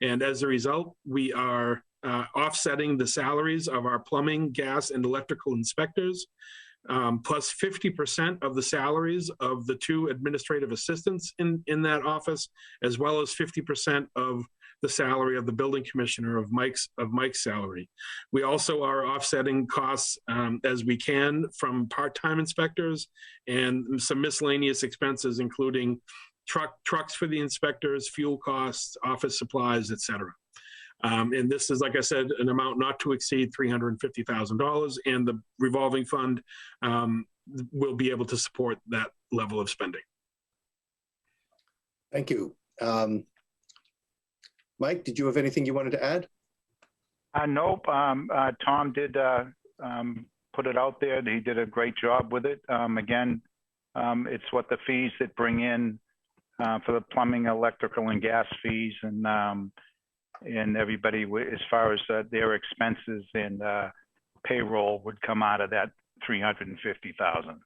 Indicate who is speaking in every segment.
Speaker 1: And as a result, we are uh, offsetting the salaries of our plumbing, gas, and electrical inspectors, um, plus 50% of the salaries of the two administrative assistants in, in that office, as well as 50% of the salary of the building commissioner of Mike's, of Mike's salary. We also are offsetting costs um, as we can from part-time inspectors and some miscellaneous expenses, including truck, trucks for the inspectors, fuel costs, office supplies, et cetera. Um, and this is, like I said, an amount not to exceed three hundred and fifty thousand dollars, and the revolving fund um, will be able to support that level of spending.
Speaker 2: Thank you. Um, Mike, did you have anything you wanted to add?
Speaker 3: Uh, nope. Um, uh, Tom did uh, um, put it out there. He did a great job with it. Um, again, um, it's what the fees that bring in uh, for the plumbing, electrical, and gas fees, and um, and everybody wi- as far as uh, their expenses and uh, payroll would come out of that three hundred and fifty thousand.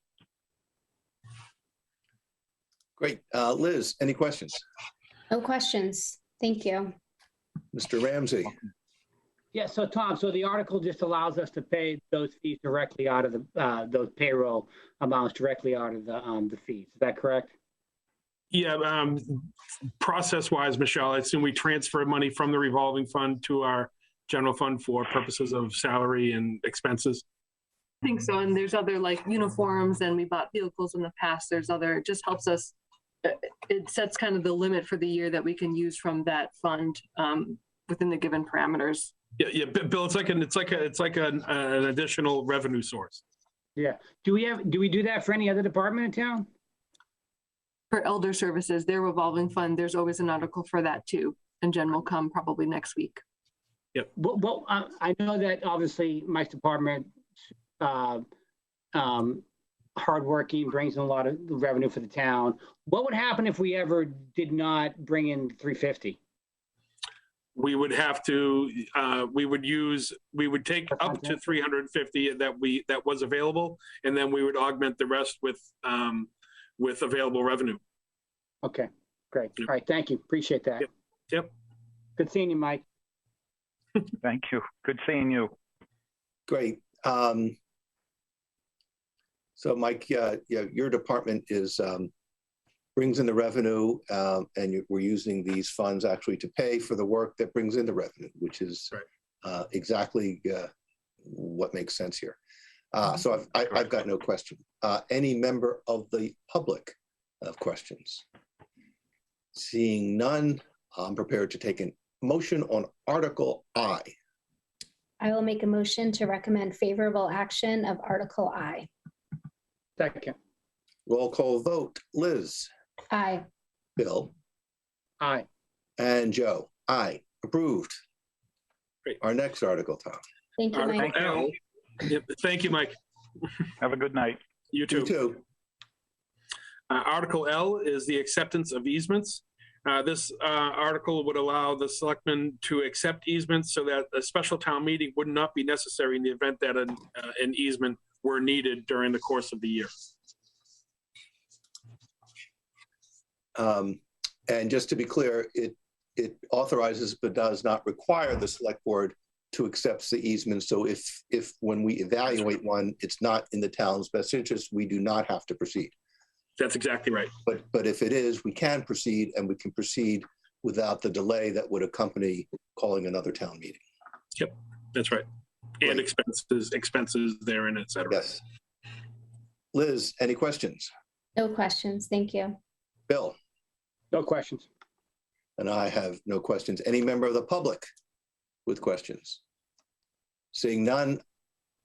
Speaker 2: Great. Uh, Liz, any questions?
Speaker 4: No questions. Thank you.
Speaker 2: Mr. Ramsey,
Speaker 5: Yeah, so Tom, so the article just allows us to pay those fees directly out of the, uh, those payroll amounts directly out of the, um, the fees. Is that correct?
Speaker 1: Yeah, um, process-wise, Michelle, I assume we transfer money from the revolving fund to our general fund for purposes of salary and expenses.
Speaker 6: I think so. And there's other like uniforms and we bought vehicles in the past. There's other, it just helps us. uh, It sets kind of the limit for the year that we can use from that fund um, within the given parameters.
Speaker 1: Yeah, yeah, Bi- Bill, it's like an, it's like a, it's like an, an additional revenue source.
Speaker 5: Do we have, do we do that for any other department in town?
Speaker 6: For elder services, their revolving fund, there's always an article for that too. And Jen will come probably next week.
Speaker 5: Well, well, I, I know that obviously Mike's department, uh, um, hardworking, brings in a lot of revenue for the town. What would happen if we ever did not bring in three fifty?
Speaker 1: We would have to, uh, we would use, we would take up to
Speaker 5: Okay.
Speaker 1: three hundred and fifty that we, that was available, and then we would augment the rest with, um, with available revenue.
Speaker 5: Okay, great. All
Speaker 1: Yep.
Speaker 5: right, thank you. Appreciate that.
Speaker 1: Yep. Yep.
Speaker 5: Good seeing you, Mike.
Speaker 3: Thank you. Good seeing you.
Speaker 2: great. Um, so Mike, uh, yeah, your department is, um, brings in the revenue, um, and you- we're using these funds actually to pay for the work that brings in the revenue, which is
Speaker 1: Right.
Speaker 2: uh, exactly, uh, what makes sense here. Uh, so I've, I, I've got no question. Uh, any member of the public have questions? Seeing none, I'm prepared to take a motion on Article I.
Speaker 4: I will make a motion to recommend favorable action of Article I.
Speaker 5: Second.
Speaker 2: Roll call vote, Liz,
Speaker 4: Aye.
Speaker 2: Bill,
Speaker 5: Aye.
Speaker 2: and Joe. Aye, approved.
Speaker 1: Great.
Speaker 2: Our next article, Tom.
Speaker 4: Thank you,
Speaker 1: Article
Speaker 4: Mike.
Speaker 1: L. Yep, Thank you, Mike.
Speaker 3: Have a good night.
Speaker 1: You
Speaker 2: You
Speaker 1: too.
Speaker 2: too.
Speaker 1: Uh, Article L is the acceptance of easements. Uh, This uh, article would allow the selectmen to accept easements so that a special town meeting would not be necessary in the event that an uh, an easement were needed during the course of the year.
Speaker 2: Um, And just to be clear, it, it authorizes but does not require the select board to accept the easement. So if, if, when we evaluate one, it's not in the town's best interest, we do not have to proceed.
Speaker 1: That's exactly right.
Speaker 2: But, but if it is, we can proceed and we can proceed without the delay that would accompany calling another town meeting.
Speaker 1: That's right. And
Speaker 2: Right.
Speaker 1: expenses, expenses therein, et cetera.
Speaker 2: Yes. Liz, any questions?
Speaker 4: No questions. Thank you.
Speaker 2: Bill?
Speaker 5: No questions.
Speaker 2: And I have no questions. Any member of the public with questions? Seeing none,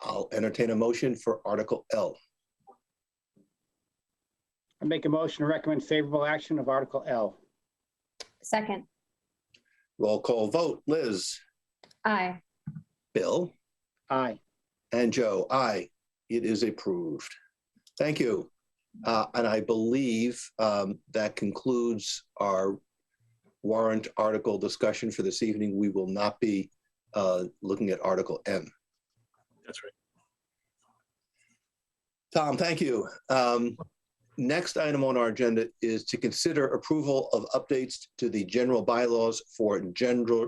Speaker 2: I'll entertain a motion for Article L.
Speaker 5: I make a motion to recommend favorable action of Article L.
Speaker 4: Second.
Speaker 2: Roll call vote, Liz,
Speaker 4: Aye.
Speaker 2: Bill,
Speaker 5: Aye.
Speaker 2: and Joe. Aye, it is approved. Thank you. Uh, And I believe um, that concludes our warrant article discussion for this evening. We will not be uh, looking at Article M.
Speaker 1: That's right.
Speaker 2: Tom, thank you. Um, next item on our agenda is to consider approval of updates to the general bylaws for general